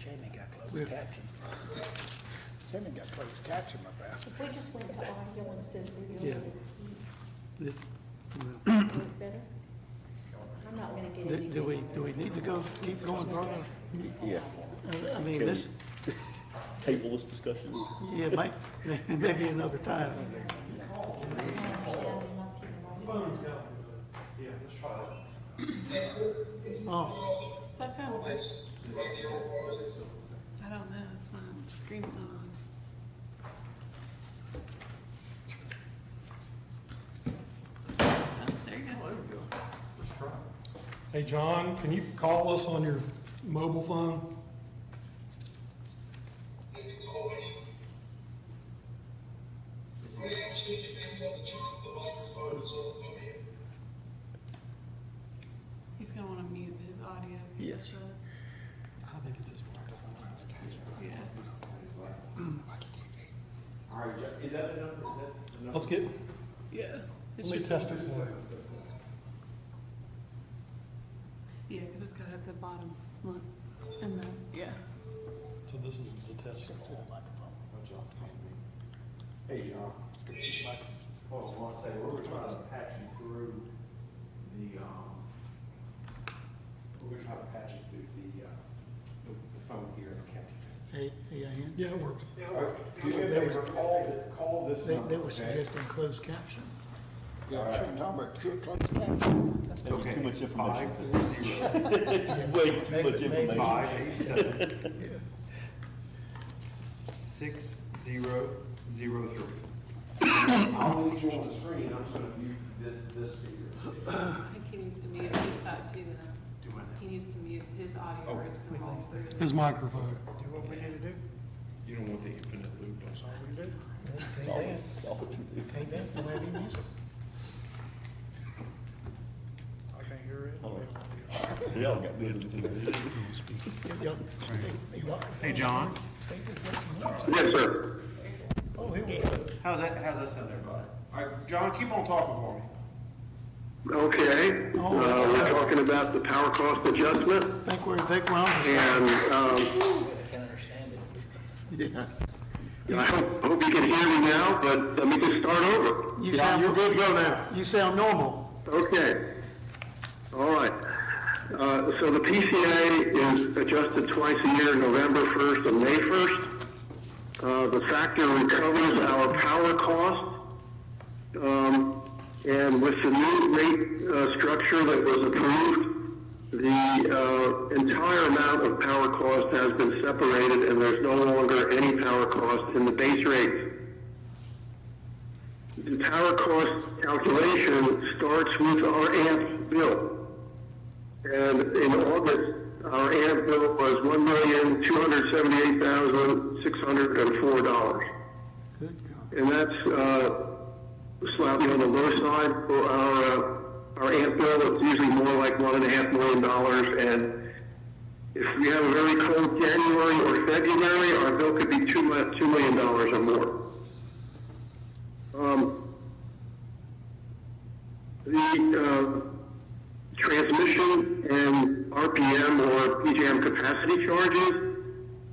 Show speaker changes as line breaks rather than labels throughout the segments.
Shaman got closed caption. Shaman got closed caption about it.
If we just went to audio instead of video,
This,
would it work better? I'm not gonna get
do
any.
do we, do we need to go, keep going further?
Yeah,
I- I mean, this,
table this discussion.
yeah, might, maybe another time. Oh,
Is that kind of? I don't know, it's not, the screen's not on. Oh, There you go.
Hey, John, can you call us on your mobile phone?
He's gonna wanna mute his audio.
Yes.
so-
I think it's his microphone.
Yeah.
All right, Jack, is that the number, is that the number?
Let's get,
Yeah. It
let me
should-
test it.
Yeah, cause it's got it at the bottom, look, and then, yeah.
So this is the test.
Oh, John, hey, Hey, John. Well, I want to say, we were trying to patch you through the, um, we were trying to patch you through the, uh, the the phone here in the county.
A- AIN?
Yeah, it works.
All right, do you have a call, th- call this
They,
number,
they were
okay?
suggesting closed caption.
Yeah, Shaman talking about pure closed caption.
That was too much information.
Five, zero,
It's way too much information.
five, eight, seven. Six, zero, zero, three. I'll leave you on the screen, I'm just gonna mute this, this speaker.
I think he needs to mute his side too, though.
Do what
He needs to mute his audio or it's gonna roll through.
His microphone.
Do what we need to do.
You don't want the infinite loop,
That's all we do.
All
Can't
we-
dance,
all we can do.
can't dance, nobody can use it. I can't hear it.
They all got good listening.
Hey, John.
Yes, sir.
Oh, here we go.
How's that, how's that sound there, bud? All right, John, keep on talking for me.
Okay,
Oh.
uh, we're talking about the power cost adjustment,
Think we're, think we're on the same-
and, um,
Can understand it.
yeah.
I hope, hope you can hear me now, but let me just start over.
You sound, you're good to go now. You sound normal.
Okay, all right. Uh, so the PCA is adjusted twice a year, November first and May first. Uh, the factor recovers our power cost. Um, and with the new rate, uh, structure that was approved, the, uh, entire amount of power cost has been separated and there's no longer any power cost in the base rate. The power cost calculation starts with our AMP bill. And in August, our AMP bill was one million, two hundred seventy-eight thousand, six hundred and four dollars.
Good God.
And that's, uh, slightly on the low side for our, uh, our AMP bill. It's usually more like one and a half million dollars. And if we have a very cold January or February, our bill could be two, mi- two million dollars or more. Um, the uh, transmission and RPM or PJM capacity charges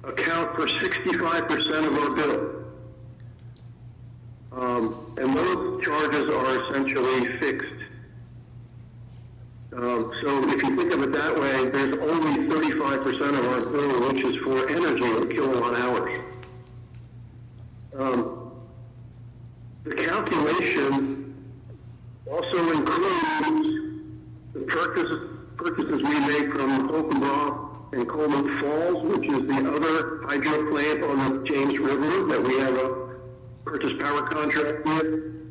account for 65% of our bill. Um, and those charges are essentially fixed. Um, so if you think of it that way, there's only 35% of our bill which is for energy or kilowatt hours. Um, the calculation also includes the purchases, purchases we make from Oakenbaugh and Coleman Falls, which is the other hydro plant on the James River that we have a purchase power contract with.